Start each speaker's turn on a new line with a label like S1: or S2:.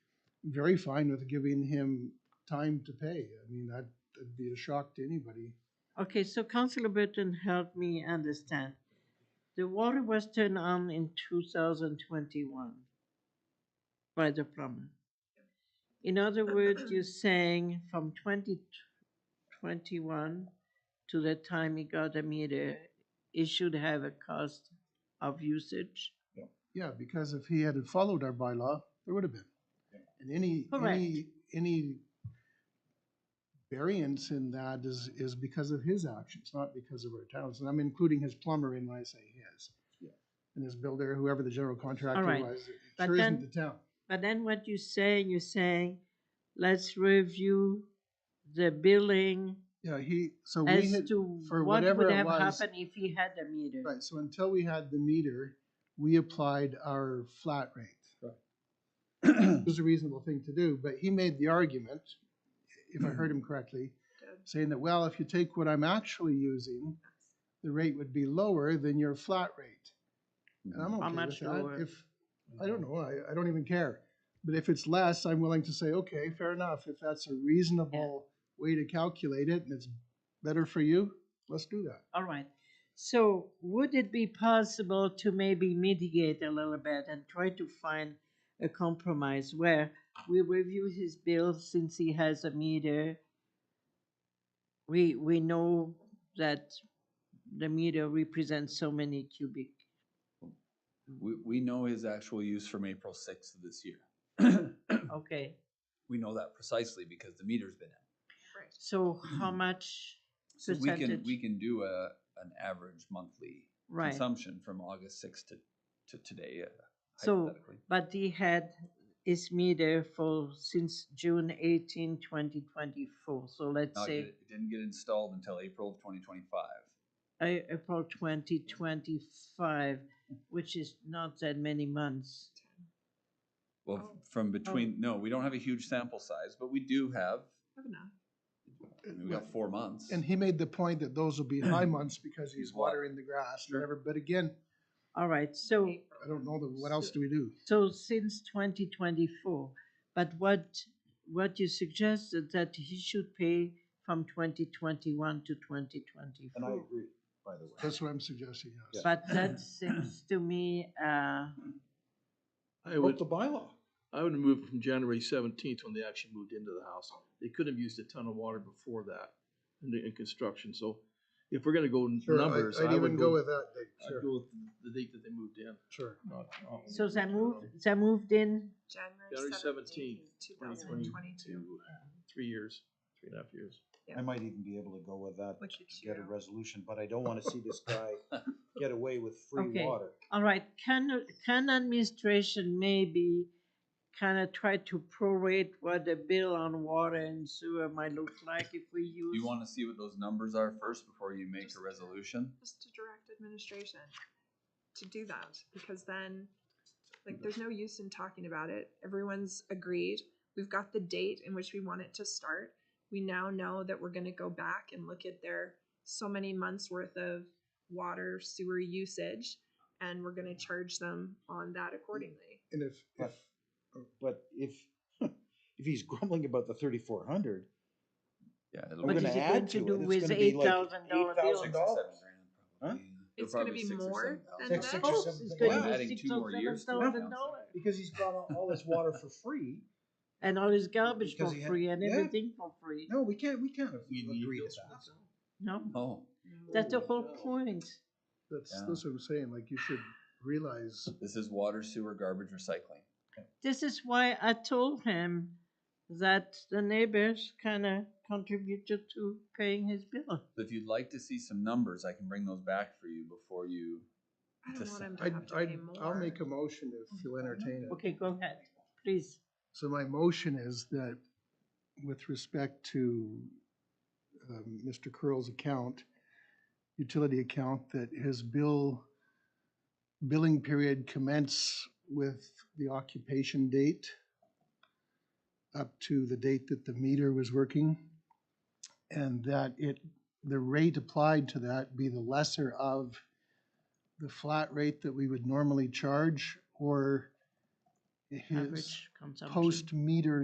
S1: very fine with giving him time to pay. I mean, that- that'd be a shock to anybody.
S2: Okay, so Councillor Burton helped me understand. The water was turned on in two thousand twenty-one by the plumber. In other words, you're saying from twenty twenty-one to the time he got a meter, it should have a cost of usage?
S1: Yeah, because if he had followed our bylaw, there would have been. And any,
S2: Correct.
S1: any, any variance in that is, is because of his actions, not because of our towns. And I'm including his plumber in when I say his. And his builder, whoever the general contractor
S2: right.
S1: was, it
S2: But
S1: sure isn't
S2: then-
S1: the town.
S2: But then what you're saying, you're saying, let's review the billing
S1: Yeah, he, so we
S2: as
S1: had,
S2: to
S1: for
S2: what
S1: whatever
S2: would
S1: it
S2: have
S1: was-
S2: happened if he had a meter.
S1: right, so until we had the meter, we applied our flat rate. It was a reasonable thing to do, but he made the argument, if I heard him correctly, saying that, well, if you take what I'm actually using, the rate would be lower than your flat rate. And
S3: Mm-hmm.
S1: I'm
S2: How
S1: okay with
S2: much
S1: that.
S2: lower?
S1: If, I don't know, I, I don't even care. But if it's less, I'm willing to say, okay, fair enough. If that's a reasonable way to calculate it and it's better for you, let's do that.
S2: All right. So would it be possible to maybe mitigate a little bit and try to find a compromise where we review his bill since he has a meter? We, we know that the meter represents so many cubic.
S3: We, we know his actual use from April sixth of this year.
S2: Okay,
S3: We know that precisely because the meter's been in.
S2: so how much?
S3: Mm-hmm. So we can, we
S2: Percentage.
S3: can do a, an average monthly
S2: Right,
S3: consumption from August sixth to, to today uh,
S2: So-
S3: hypothetically.
S2: but he had his meter for since June 18, 2024. So let's
S3: Not get-
S2: say.
S3: It didn't get installed until April of twenty twenty-five.
S2: A- April twenty twenty-five, which is not that many months.
S3: Well,
S2: Oh.
S3: f- from between, no, we don't have a huge sample size, but we do have,
S4: Have enough.
S3: I mean, we got four months.
S1: And he made the point that those will be high months because he's
S3: He's wa-
S1: watering the grass and
S3: Sure.
S1: whatever. But again,
S2: All right, so,
S1: I don't know, that- what else do we do?
S2: so since twenty twenty-four, but what, what you suggested that he should pay from twenty twenty-one to twenty
S5: And I
S2: twenty-four.
S5: agree, by the way.
S1: That's what I'm suggesting, yes.
S2: But that seems to me, uh,
S6: I
S5: What
S6: would,
S5: the bylaw?
S6: I would move from January seventeenth when they actually moved into the house. They could have used a ton of water before that in the, in construction, so if we're gonna go n-
S1: Sure, I-
S6: numbers, I
S1: I'd even
S6: would
S1: go
S6: go,
S1: with that, Dave,
S6: I'd
S1: sure,
S6: go with the date that they moved in.
S1: sure.
S6: not- not-
S2: so they moved, they moved in,
S6: January
S4: January
S6: seventeenth,
S4: seventeenth, two
S6: twenty
S4: thousand and twenty-two.
S6: twenty-two, three years, three and a half years.
S5: I might even be able to go with that
S4: Look
S5: to
S4: at
S5: get
S4: you.
S5: a resolution, but I don't wanna see this guy get away with free
S2: Okay.
S5: water.
S2: All right, can, can administration maybe kind of try to prorate what the bill on water and sewer might look like if we use?
S3: You wanna see what those numbers are first before you make
S4: Just-
S3: a resolution?
S4: Just to direct administration to do that, because then, like, there's no use in talking about it. Everyone's agreed. We've got the date in which we want it to start. We now know that we're gonna go back and look at their so many months worth of water sewer usage, and we're gonna charge them on that accordingly.
S1: And if, if,
S5: But- But if, if he's grumbling about the thirty-four hundred,
S3: Yeah. it'll
S2: What
S3: be
S5: we're gonna
S2: is it
S5: add
S2: going
S5: to
S2: to
S5: it,
S2: do
S5: it's
S2: with
S5: gonna be
S2: eight
S5: like
S2: thousand dollar bill?
S3: six or
S5: $8,000
S3: seven
S5: dollars.
S3: grand
S5: Huh?
S3: probably. They're
S4: It's gonna
S3: probably
S4: be
S3: six or
S4: more
S3: seven
S4: than
S3: thousand.
S4: Six,
S2: Of
S4: six
S2: course,
S5: seven
S2: it's going
S5: thousand
S2: to
S5: dollars.
S2: be
S3: Adding
S2: six
S3: two
S2: or
S3: more years to the
S2: $7,000
S3: account.
S5: because he's got all- all this water for free,
S2: And all his garbage for
S5: Because he had-
S2: free and
S5: yeah.
S2: everything for free,
S5: no, we can't, we can't
S6: We need
S5: agree
S6: those
S5: to that.
S2: no?
S3: Oh,
S2: That's the whole point.
S1: that's,
S3: Yeah.
S1: that's what I'm saying, like, you should realize,
S3: this is water, sewer, garbage, recycling.
S2: This is why I told him that the neighbors kind of contributed to paying his bill.
S3: So if you'd like to see some numbers, I can bring those back for you before you.
S4: I don't want 'em to
S1: I,
S4: have to
S1: I,
S4: pay
S1: I'll
S4: more.
S1: make a motion if you'll entertain it.
S2: Okay, go ahead, please.
S1: So my motion is that with respect to, um, Mr. Curl's account, utility account, that his bill, billing period commence with the occupation date up to the date that the meter was working, and that it, the rate applied to that be the lesser of the flat rate that we would normally charge, or his
S2: Average consumption.
S1: post meter